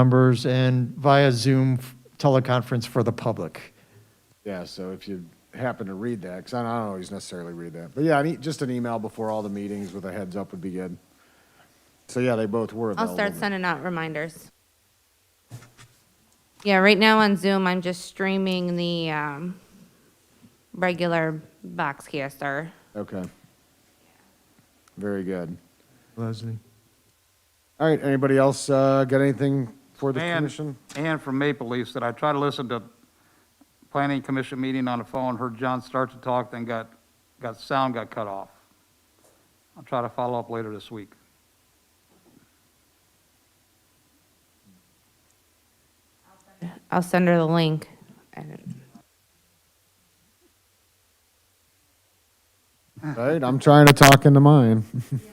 members and via Zoom teleconference for the public. Yeah, so if you happen to read that, because I don't always necessarily read that, but yeah, I need, just an email before all the meetings with a heads up would be good. So yeah, they both were I'll available. start but- sending out reminders. Yeah, right now on Zoom, I'm just streaming the um, regular Boxcaster. Okay. Very good. Leslie? All right, anybody else uh, got anything for the And- commission? And from Maple Leaf said, I try to listen to planning commission meeting on the phone, heard John start to talk, then got, got, sound got cut off. I'll try to follow up later this week. I'll send her the link. And- All right, I'm trying to talk into mine.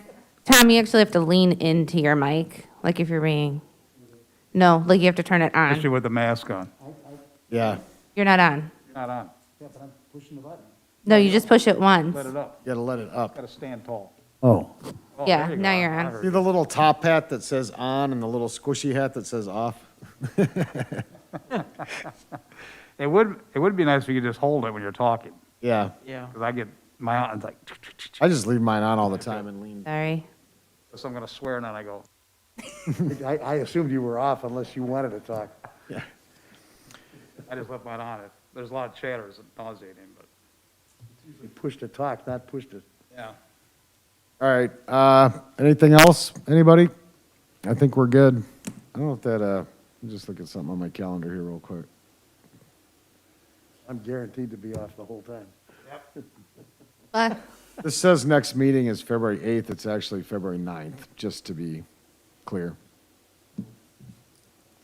Tom, you actually have to lean into your mic, like if you're being, no, like you have to turn it Especially on. with the mask on. Yeah, You're not on. Not on. No, you just push it once. Let it up. gotta let it up. Got to stand tall. Oh. Oh, Yeah, there you go. now you're I- I on. heard See the little top hat that says on and the little squishy hat that says off? It would, it would be nice if you could just hold it when you're talking, Yeah, Yeah. because I get, my, aunt's like, I just leave mine on all the time and lean. Sorry. so I'm going to swear, and then I go, I, I assumed you were off unless you wanted to talk. I just left mine on. It There's a lot of chatter, it's nauseating, but, You pushed to talk, not pushed to yeah. All right, uh, anything else, anybody? I think we're good. I don't know if that, uh, let me just look at something on my calendar here real quick. I'm guaranteed to be off the whole time. Well, This says next meeting is February 8th, it's actually February 9th, just to be clear. I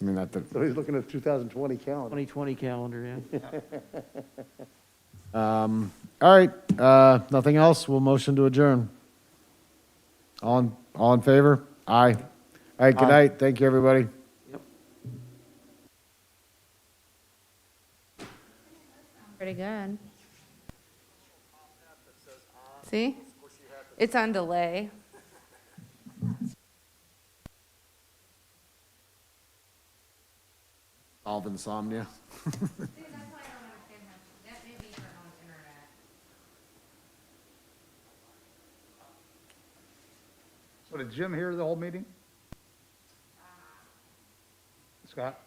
mean, not that, So he's looking at 2020 calendar. 2020 calendar, yeah. all right, uh, nothing else, we'll motion to adjourn. All, in- all in favor? Aye. All right, good night, thank you, everybody. Pretty good. See? It's on delay. All of insomnia. So did Jim hear the whole meeting? Scott?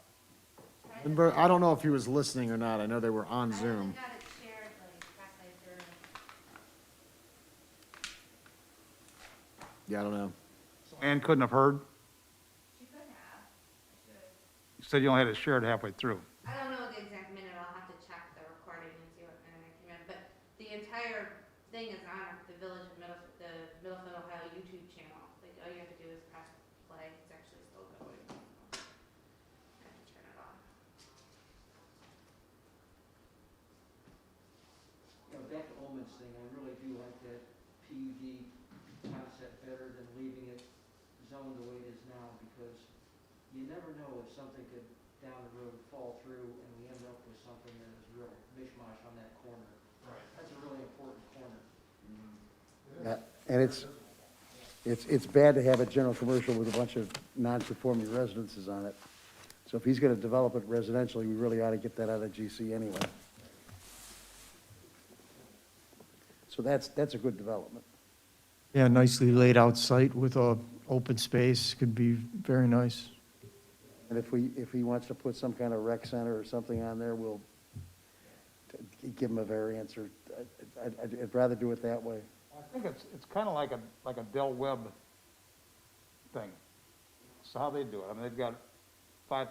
And Bert, I don't know if he was listening or not, I know they were on Zoom. Yeah, I don't know. Ann couldn't have heard? She could have. You said you only had it shared halfway through. I don't know the exact minute, I'll have to check the recording and see what minute I came in, but the entire thing is on the Village of Middle, the Middlefield, Ohio YouTube channel. Like, all you have to do is press play, it's actually still going. I have to turn it off. You know, back to Olman's thing, I really do like that PUD concept better than leaving it zoned the way it is now, because you never know if something could down the road fall through and we end up with something that is real mishmash on that corner. Right. That's a really important corner. Yeah, And it's, it's, it's bad to have a general commercial with a bunch of non-conforming residences on it. So if he's going to develop it residentially, we really ought to get that out of GC anyway. So that's, that's a good development. Yeah, nicely laid out site with a open space, could be very nice. And if we, if he wants to put some kind of rec center or something on there, we'll t- give him a variance or, I- I- I'd, I'd rather do it that way. I think it's, it's kind of like a, like a Dell Web thing. So how they do it, I mean, they've got